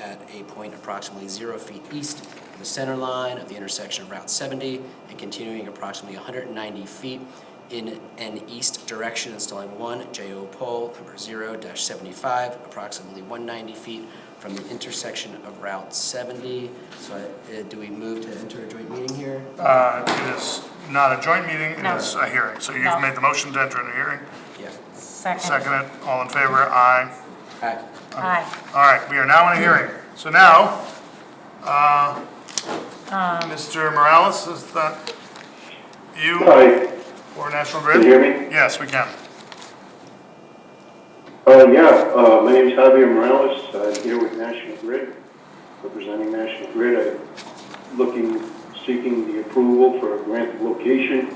at a point approximately zero feet east of the center line of the intersection of Route 70 and continuing approximately 190 feet in an east direction, installing one JO pole number 0-75, approximately 190 feet from the intersection of Route 70. So I- uh, do we move to enter a joint meeting here? Uh, It is not a joint meeting, it No. is a hearing. So No. you've made the motion to enter into hearing. Yeah. Second. Second it, all in favor, aye. Aye. Aye. All right, we are now in a hearing. So now, uh, Um. Mr. Morales, is that you Hi, or National can Grid? you hear me? Yes, we can. Uh, yeah, uh, my name is Javier Morales, I'm here with National Grid, representing National Grid. I'm looking, seeking the approval for a grant of location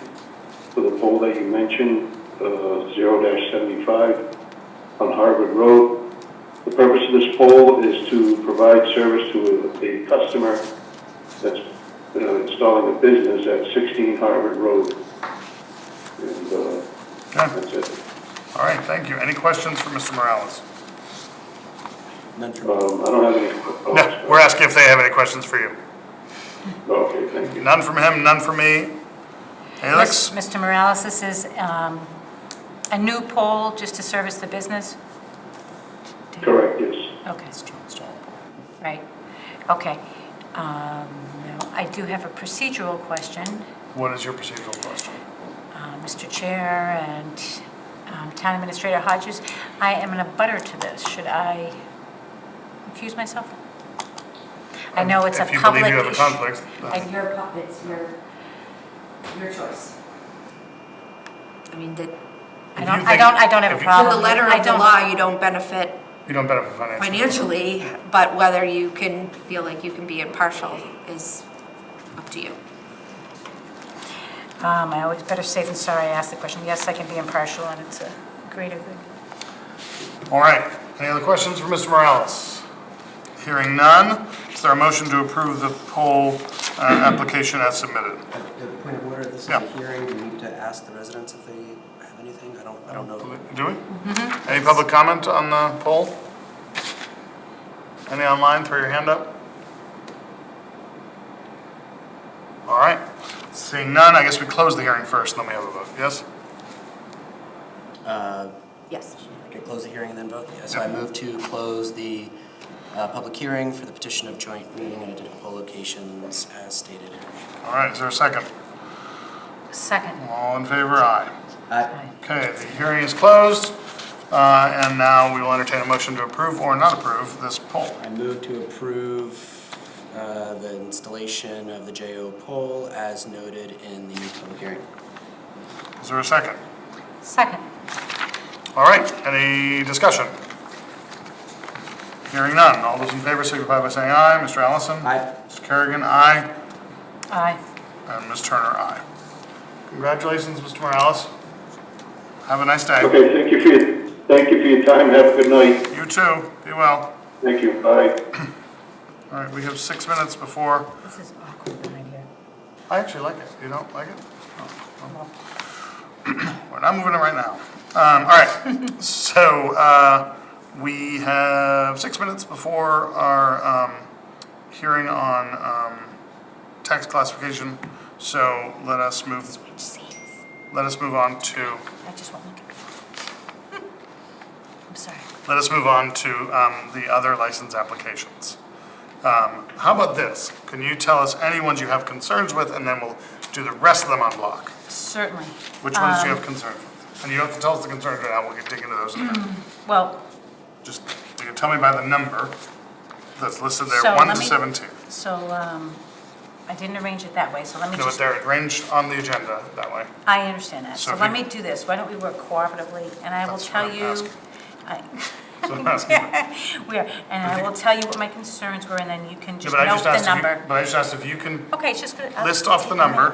for the pole that you mentioned, uh, zero seventy-five on Harvard Road. The purpose of this pole is to provide service to a a customer that's uh, installing a business at sixteen Harvard Road. And, uh, Okay. that's it. All right, thank you. Any questions for Mr. Morales? None for me. Um, I don't have any. oh, No, we're asking if they have any questions for you. Okay, thank you. None from him, none from me. Alex? Mr. Morales, this is um, a new poll just to service the business? Correct, yes. Okay. Right, okay. Um, now, I do have a procedural question. What is your procedural question? uh, Mr. Chair and um, Town Administrator Hodges, I am in a butter to this. Should I accuse myself? I know it's a Um, If you public believe you issue. have a conflict, uh, I- then- Your, pu- it's your, your choice. I mean, the, I If don't, you I think- don't, I don't if have a you- to the problem. letter I of the don't- law, you don't benefit you don't benefit financially. financially, but whether you can feel like you can be impartial is up to you. Um, I always better safe than sorry, I asked the question. Yes, I can be impartial and it's a greater good. All right, any other questions for Mr. Morales? Hearing none, is there a motion to approve the poll uh, application as Uh, submitted? uh, Point of order, this is Yeah. a hearing, we need to ask the residents if they have anything, I don't, I don't know. Do we? Any public comment on the poll? Any online, throw your hand up? All right, seeing none, I guess we close the hearing first, and then we have a vote, yes? Uh, Yes. Okay, close the hearing and then vote? Yeah, so I move to close the uh, public hearing for the petition of joint meeting and identical poll locations as stated. All right, is there a second? Second. All in favor, aye. Aye. Okay, the hearing is closed, uh, and now we will entertain a motion to approve or not approve this poll. I move to approve uh, the installation of the JO poll as noted in the public hearing. Is there a second? Second. All right, any discussion? Hearing none, all those in favor signify by saying aye. Mr. Allison? Aye. Mr. Kerrigan, aye. Aye. And Ms. Turner, aye. Congratulations, Mr. Morales. Have a nice day. Okay, thank you for your, thank you for your time, have a good night, You too, be well. thank you, bye. All right, we have six minutes before, This is awkward behind here. I actually like it, you don't like it? Oh, well. We're not moving it right now. Um, All right, so uh, we have six minutes before our um, hearing on um, tax classification, so let us move, let us move on to, I just won't look at it. I'm sorry. let us move on to um, the other license applications. Um, How about this? Can you tell us any ones you have concerns with, and then we'll do the rest of them on block? Certainly. Which ones Um, do you have concerns with? And you don't have to tell us the concerns right now, we can dig into those in a minute. Well, Just, you can tell me by the number that's listed So there, one let to me- seventeen. So, um, I didn't arrange it that way, so let me No, but just, they're arranged on the agenda that way. I understand that. So So if let you- me do this, why don't we work cooperatively, and I will That's what tell I'm you. asking. I- So I'm asking. you- We are, and I will tell you what my concerns were, and then you can Yeah, just but I note just the asked if you, number. but I just asked if you can Okay, it's just. gonna- I'll- list off the number,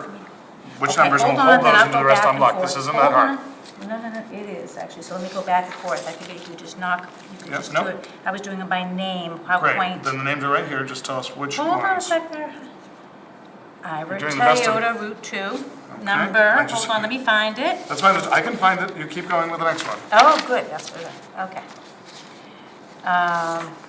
which Okay, numbers, and hold we'll hold on, then those I'll and do the go rest back on and block. forth. This isn't Hold that hard. on. No, no, no, it is actually, so let me go back and forth, I figured you just knock, you could Yep, just nope. do it. I was doing them by name, how Great, quaint. then the names are right here, just tell us which Hold on a ones. second. Ira doing the best of- Toyota Route 2, I number, just- hold on, let me find it. That's fine, I can find it, you keep going with the next one. Oh, good, that's, what I- okay. Um,